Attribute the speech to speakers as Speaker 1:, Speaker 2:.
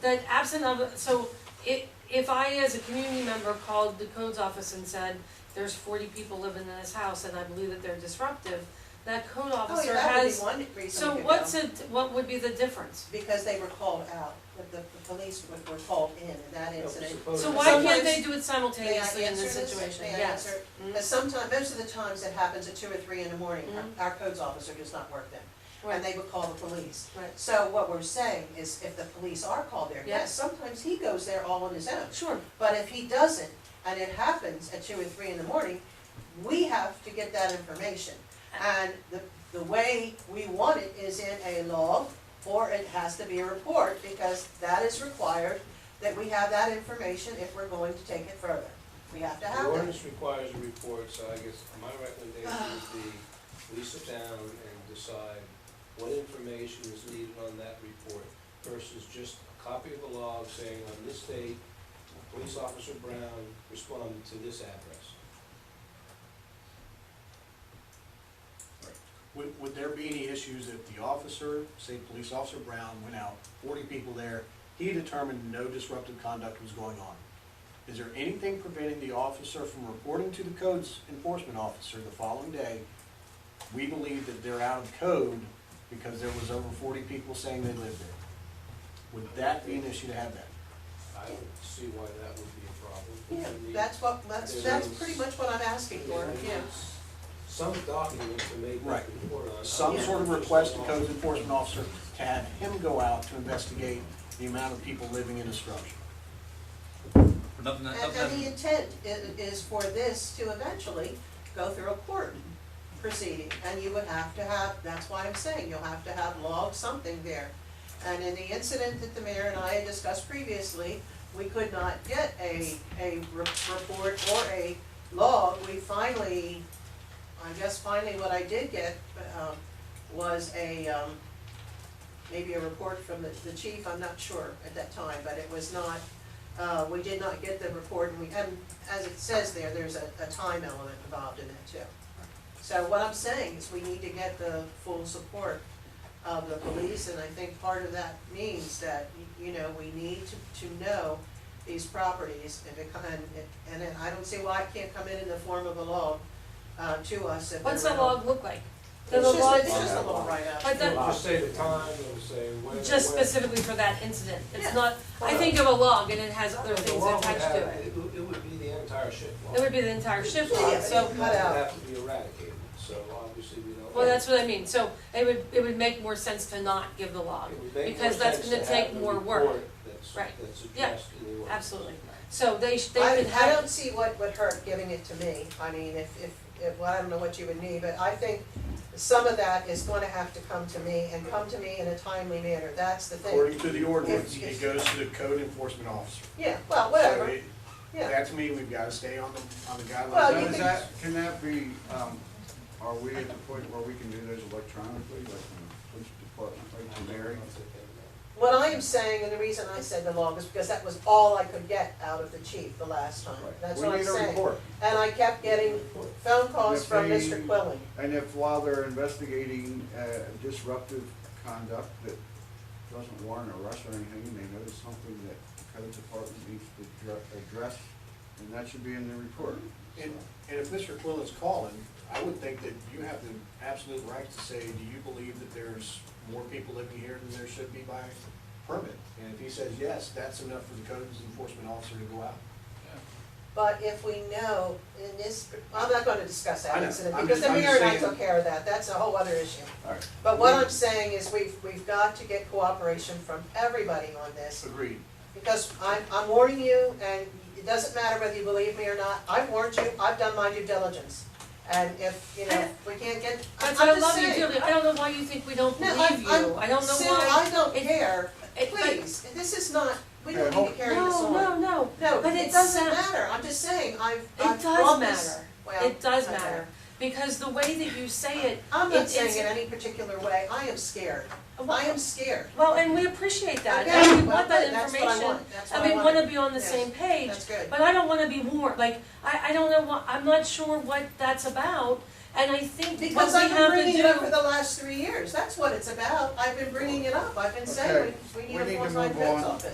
Speaker 1: that absent of, so i- if I as a community member called the codes office and said, there's forty people living in this house and I believe that they're disruptive, that code
Speaker 2: Oh, yeah,
Speaker 1: officer
Speaker 2: that would be
Speaker 1: has,
Speaker 2: one reason we could
Speaker 1: so
Speaker 2: go.
Speaker 1: what's it, what would be the difference?
Speaker 2: Because they were called out, the, the the police were- were called in in that
Speaker 3: Oh, Yeah,
Speaker 2: incident.
Speaker 3: supposedly.
Speaker 1: So why can't they
Speaker 2: Sometimes-
Speaker 1: do it simultaneously in this
Speaker 2: answer this?
Speaker 1: situation?
Speaker 2: May I
Speaker 1: Yes.
Speaker 2: answer?
Speaker 1: Mm,
Speaker 2: But sometimes, most of the times it happens at two or three in the morning, Our-
Speaker 1: Mhm.
Speaker 2: our codes officer does not work then,
Speaker 1: right.
Speaker 2: and they would call the police.
Speaker 1: Right.
Speaker 2: So what we're saying is if the police are called there, yes, sometimes he goes there all on his own.
Speaker 1: Sure,
Speaker 2: But if he doesn't, and it happens at two or three in the morning, we have to get that information. And the, the way we want it is in a log, or it has to be a report, because that is required, that we have that information if we're going to take it further. We have to
Speaker 3: The
Speaker 2: have that.
Speaker 3: ordinance requires a report, so I guess my recommendation would be, we sit down and decide what information is needed on that report versus just a copy of the log saying on this date, police officer Brown responded to this address.
Speaker 4: Would, would there be any issues if the officer, say Police Officer Brown, went out, forty people there, he determined no disruptive conduct was going on? Is there anything preventing the officer from reporting to the codes enforcement officer the following day? We believe that they're out of code because there was over forty people saying they lived there. Would that be an issue to have that?
Speaker 3: I don't see why that would be a problem.
Speaker 2: Yeah,
Speaker 3: We need-
Speaker 2: that's what, that's, that's pretty much what I'm asking
Speaker 3: we
Speaker 2: for,
Speaker 3: need
Speaker 2: yeah.
Speaker 3: Some document to make that
Speaker 4: Right.
Speaker 3: report on.
Speaker 4: Some
Speaker 3: Yeah.
Speaker 4: sort of request to codes enforcement officer to have him go out to investigate the amount of people living in a structure?
Speaker 5: Nothing,
Speaker 2: And, and the intent i- is for this to eventually go through a court proceeding, and you would have to have, that's why I'm saying, you'll have to have log something there. And in the incident that the mayor and I had discussed previously, we could not get a, a re- report or a log, we finally, I guess finally what I did get, um, was a, um, maybe a report from the, the chief, I'm not sure at that time, but it was not, uh, we did not get the report, and we, and as it says there, there's a, a time element involved in that too. So what I'm saying is we need to get the full support of the police, and I think part of that means that, y- you know, we need to, to know these properties, if it come, and, it- and then I don't see why it can't come in in the form of a log, uh, to us if.
Speaker 1: what's
Speaker 2: they're
Speaker 1: that
Speaker 2: not-
Speaker 1: log look like? Does
Speaker 2: It's just,
Speaker 1: the log,
Speaker 2: it's just a little write-up.
Speaker 1: but the,
Speaker 3: It'll Just say the time, it'll say when.
Speaker 1: just
Speaker 3: when.
Speaker 1: specifically for that incident,
Speaker 2: Yeah.
Speaker 1: it's not, I think of a log and it has other
Speaker 3: The
Speaker 1: things
Speaker 3: law would
Speaker 1: attached
Speaker 3: have-
Speaker 1: to it.
Speaker 3: It would, it would be the entire ship law.
Speaker 1: It would be the entire shift
Speaker 2: Yeah,
Speaker 1: log,
Speaker 2: but
Speaker 1: so,
Speaker 2: it's
Speaker 3: That
Speaker 2: cut out.
Speaker 3: would have to be eradicated, so obviously we don't.
Speaker 1: well, that's what I mean, so it would, it would make more sense to not give the log.
Speaker 3: It would make
Speaker 1: because
Speaker 3: more
Speaker 1: that's
Speaker 3: sense
Speaker 1: gonna
Speaker 3: to
Speaker 1: take
Speaker 3: have the
Speaker 1: more work.
Speaker 3: report That's,
Speaker 1: Right.
Speaker 3: that's
Speaker 1: Yeah,
Speaker 3: addressed in the ordinance.
Speaker 1: Absolutely, so they, sh- they
Speaker 2: I,
Speaker 1: could
Speaker 2: I don't
Speaker 1: have,
Speaker 2: see what would hurt giving it to me, I mean, if, if, if, well, I don't know what you would need, but I think some of that is gonna have to come to me, and come to me in a timely manner, that's the thing.
Speaker 4: According to the ordinance, it goes to the code enforcement officer.
Speaker 2: Yeah, well,
Speaker 4: So
Speaker 2: whatever,
Speaker 4: it-
Speaker 2: yeah,
Speaker 4: That to me, we've gotta stay on the, on the
Speaker 2: Well,
Speaker 4: guidelines.
Speaker 2: Oh, you
Speaker 6: Now, is
Speaker 2: can-
Speaker 6: that, can that be, um, are we at the point where we can do those electronically, like from the police department, like to Mary?
Speaker 2: what I am saying, and the reason I said the log is because that was all I could get out of the chief the last time,
Speaker 6: Right.
Speaker 2: that's
Speaker 6: We
Speaker 2: what I'm
Speaker 6: need a
Speaker 2: saying.
Speaker 6: report.
Speaker 2: And I kept getting phone calls
Speaker 6: If
Speaker 2: from
Speaker 6: they-
Speaker 2: Mr. Quillen,
Speaker 6: And if while they're investigating uh, disruptive conduct that doesn't warrant arrest or anything, they notice something that the code department needs to dr- address, and that should be in the report.
Speaker 4: And, and if Mr. Quillen's calling, I would think that you have the absolute right to say, do you believe that there's more people living here than there should be by permit? And if he says yes, that's enough for the code enforcement officer to go out.
Speaker 2: but if we know in this, I'm not gonna discuss
Speaker 4: I
Speaker 2: that
Speaker 4: know.
Speaker 2: incident,
Speaker 6: I'm
Speaker 2: because the
Speaker 6: just- I'm
Speaker 2: mayor and I
Speaker 6: just saying-
Speaker 2: took care of that, that's a whole other issue.
Speaker 6: All right.
Speaker 2: But what I'm saying is we've, we've got to get cooperation from everybody on this,
Speaker 4: Agreed.
Speaker 2: because I'm, I'm warning you, and it doesn't matter whether you believe me or not, I've warned you, I've done my due diligence. And if, you know, we can't get, I- I'm
Speaker 1: that's
Speaker 2: just
Speaker 1: what
Speaker 2: saying.
Speaker 1: I love you, Julie, I don't know why you think we don't
Speaker 2: No,
Speaker 1: believe you,
Speaker 2: I'm-
Speaker 1: I don't know
Speaker 2: I'm-
Speaker 1: why.
Speaker 2: Sue, I don't
Speaker 1: It-
Speaker 2: care,
Speaker 1: it- but-
Speaker 2: please, this is not, we
Speaker 6: Yeah,
Speaker 2: don't need
Speaker 6: hold-
Speaker 2: to carry this on.
Speaker 1: No, no, no,
Speaker 2: No,
Speaker 1: but
Speaker 2: it
Speaker 1: it
Speaker 2: doesn't
Speaker 1: sound-
Speaker 2: matter, I'm just saying, I've,
Speaker 1: It
Speaker 2: I've
Speaker 1: does
Speaker 2: brought this,
Speaker 1: matter.
Speaker 2: well,
Speaker 1: it does
Speaker 2: okay.
Speaker 1: matter, because the way that you say it,
Speaker 2: I'm
Speaker 1: It-
Speaker 2: not
Speaker 1: it's-
Speaker 2: saying in any particular way, I am scared, I am scared.
Speaker 1: well, and we appreciate that,
Speaker 2: Okay,
Speaker 1: and we
Speaker 2: well,
Speaker 1: want that
Speaker 2: good, that's what I
Speaker 1: information,
Speaker 2: want, that's what
Speaker 1: and we
Speaker 2: I
Speaker 1: wanna
Speaker 2: wanted.
Speaker 1: be on the
Speaker 2: Yes,
Speaker 1: same page,
Speaker 2: That's good.
Speaker 1: But I don't wanna be warned, like, I, I don't know what, I'm not sure what that's about, and I think what
Speaker 2: Because
Speaker 1: we
Speaker 2: I've been
Speaker 1: have to
Speaker 2: bringing
Speaker 1: do.
Speaker 2: it up for the last three years, that's what it's about, I've been bringing it up, I've been saying, we, we need a
Speaker 6: Okay, we need to
Speaker 2: full-time
Speaker 6: move
Speaker 2: codes
Speaker 6: on.
Speaker 2: office.